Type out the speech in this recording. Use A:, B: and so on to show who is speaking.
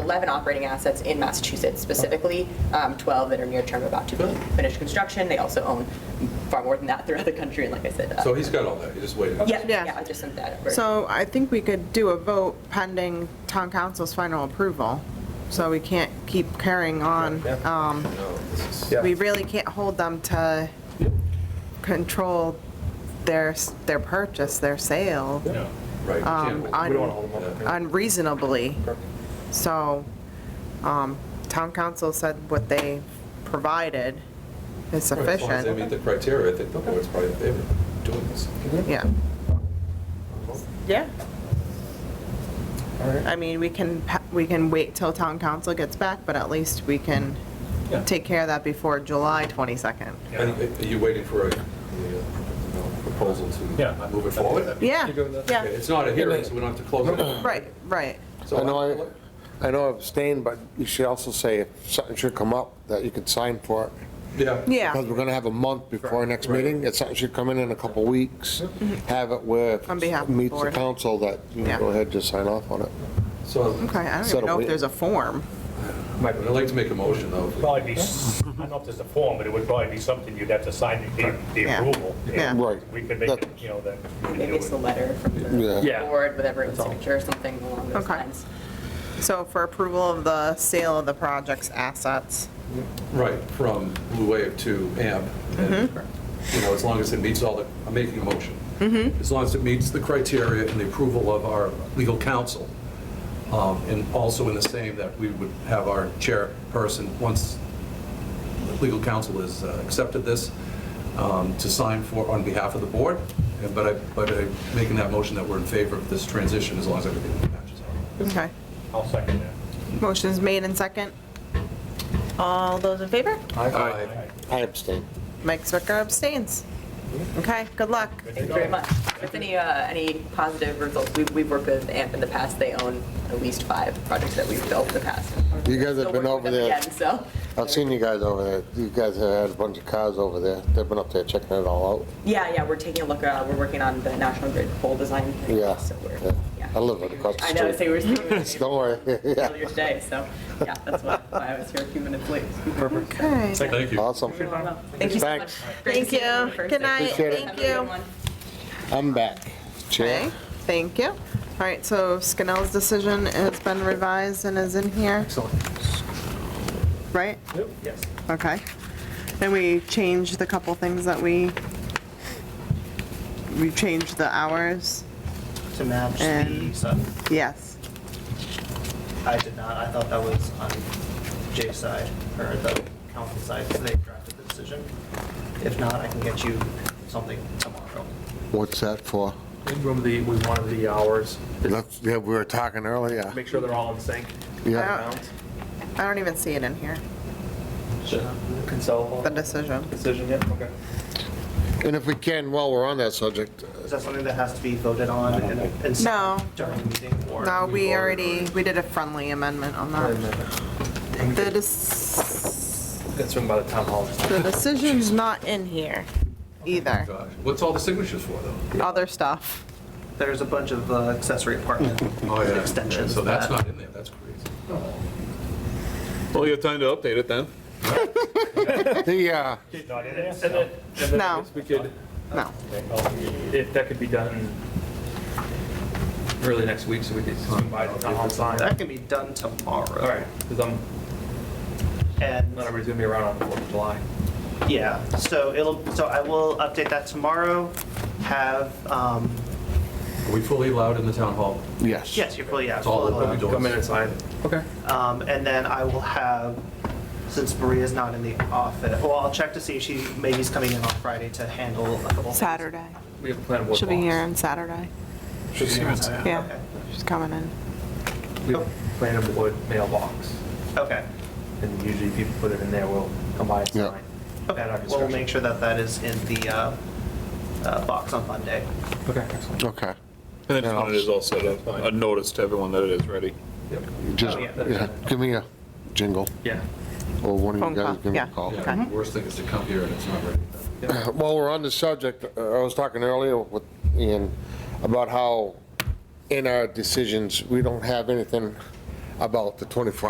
A: 11 operating assets in Massachusetts specifically, um, 12 that are near term about to be finished construction. They also own far more than that throughout the country, and like I said. uh,
B: So he's got all that, he's just waiting.
A: Yeah,
C: Yeah.
A: yeah, I just sent that. over.
C: So I think we could do a vote pending town council's final approval. So we can't keep carrying on. Um,
B: No, this is-
D: Yeah.
C: We really can't hold them to control their, s- their purchase, their sale
D: Yeah.
B: Right. you can't
C: Um,
B: hold-
C: I-
D: We don't want to hold them up.
C: unreasonably. So, um, town council said what they provided is
B: Right, As long as they
C: sufficient.
B: meet the criteria, I think the board's probably in favor of doing this.
C: Yeah. Yeah.
D: All right.
C: I mean, we can, pa- we can wait till town council gets back, but at least we can
D: Yeah.
C: take care of that before July 22nd.
B: And Are you waiting for a the, uh, proposal
D: Yeah.
B: to move it forward?
C: Yeah,
D: You're good with that?
C: yeah,
B: Okay, It's not a hearing, so we don't have to close it.
C: right, right.
B: So
E: I know, I, I know I've abstained, but you should also say if something should come up that you could sign for it.
B: Yeah.
C: Yeah,
E: Because we're gonna have a month before our next
B: Right.
E: meeting, if something should come in in a couple weeks, have it where if
C: On behalf of
E: it
C: the
E: meets the
C: board.
E: council, that you
C: Yeah.
E: can go ahead, just sign off on it.
B: So
C: okay, I don't
E: Instead
C: even
E: of
C: know if
E: wait-
C: there's a form.
D: Might
B: I'd like to make a motion, though. if we-
F: Probably be, s- I don't know if there's a form, but it would probably be something you'd have to sign the, the
C: Yeah.
F: approval.
C: Yeah.
E: Right.
F: We could make it, you know, that. we could
A: Maybe
F: do
A: it's a
F: it.
A: letter from the
E: Yeah.
D: Yeah.
A: board with everyone's signature or something along those
C: Okay.
A: lines.
C: So for approval of the sale of the project's assets.
B: Right, from Blue Wave to AMP. You know, as long as it meets all the, I'm making a motion. As long as it meets the criteria and the approval of our legal counsel. Um, And also in the same that we would have our chairperson, once the legal counsel has uh, accepted this, um, to sign for, on behalf of the board. And- But I, but I'm making that motion that we're in favor of this transition as long as everything matches up.
C: Okay.
F: I'll second that.
C: Motion's made and second. All those in favor?
B: Aye.
E: I abstain.
C: Mike Zwicker abstains. Okay, good luck.
A: Thank you very much. If any, uh, any positive results, we- we've worked with AMP in the past, they own at least five projects that we've built in the past.
E: You guys have
A: Still
E: been
A: working
E: over
A: with them
E: there.
A: again, So,
E: I've seen you guys over there, you guys have had a bunch of cars over there, they've been up there checking it all out.
A: yeah, yeah, we're taking a look, uh, we're working on the National Grid pole design. thing,
E: Yeah,
A: so we're-
E: yeah.
A: yeah.
E: I live right across the
A: I know, so we
E: street.
A: were speaking
E: Don't worry, yeah,
A: earlier today, so, yeah, that's why why I was here a few minutes late.
C: Okay.
B: Thank you.
E: awesome,
A: Thank you so much.
E: Thanks.
A: Great to
C: Thank
A: see in
C: you.
A: person.
C: Good night.
E: Appreciate it.
A: Have
C: Thank
A: a good
C: you.
A: one.
E: I'm back. Chair.
C: Okay, thank you. All right, so Scannell's decision has been revised and is in here, right?
D: Yep.
F: Yes.
C: Okay. And we changed the couple things that we, we changed the hours,
G: to match the
C: And-
G: sun.
C: yes.
G: I did not, I thought that was on Jay's side, or the council side, so they drafted the decision. If not, I can get you something tomorrow.
E: What's that for?
D: Remember the, we wanted the hours, to
E: That's, yeah, we were talking earlier.
D: make sure they're all in sync.
C: Yeah.
E: Yeah,
D: Bounds.
C: I don't even see it in here,
D: Consult.
C: the decision.
D: Decision, yeah, okay.
E: and if we can, while we're on that subject,
G: Is that something that has to be voted on in, in
C: No.
G: during the meeting, or?
C: No, we already, we did a friendly amendment on that. The dec-
D: That's run by the town hall.
C: the decision's not in here either,
B: Gosh, What's all the signatures for, though?
C: other stuff.
G: There's a bunch of uh, accessory apartment
B: Oh, yeah.
G: extensions.
B: So that's
G: that-
B: not in there, that's crazy.
H: Oh. Well, you have time to update it then.
E: the, uh,
F: Not in it,
D: And
F: so.
D: then, and then I
C: No.
D: guess we could,
C: No.
D: if that could be done early next week, so we could swing by the town hall and sign.
G: That can be done tomorrow.
D: All right, because I'm,
G: And.
D: not everybody's gonna be around on the 4th of July.
G: Yeah, so it'll, so I will update that tomorrow, have, um,
B: Are we fully allowed in the town hall?
E: yes.
G: yes, you're fully, yeah.
B: It's all
G: fully
B: open.
G: allowed.
B: Come in and
D: sign. Okay.
G: Um, and then I will have, since Maria's not in the office, well, I'll check to see if she, maybe is coming in on Friday to handle a couple. things.
C: Saturday.
D: We have a plan of what.
C: She'll be here
D: blocks.
C: on Saturday.
D: Should be here.
C: Yeah,
G: Okay.
C: she's coming in.
D: We have a plan of what mailbox,
G: Okay,
D: and usually people put it in there, we'll come by and
E: Yeah.
D: sign. At our
G: okay, we'll
D: discretion.
G: make sure that that is in the, uh, uh, box on Monday.
D: Okay, excellent.
E: Okay,
H: And then
E: Yeah,
H: when it is all set up,
D: fine.
H: a notice to everyone that it is ready.
D: Yep.
E: just,
G: Oh, yeah.
E: yeah, give me a jingle,
D: Yeah.
E: or one of
C: Phone
E: you guys
C: call,
E: give me a
C: yeah.
E: call.
B: Yeah,
C: Okay.
B: the worst thing is to come here and it's not ready.
E: While we're on the subject, uh, I was talking earlier with Ian about how in our decisions, we don't have anything about the 24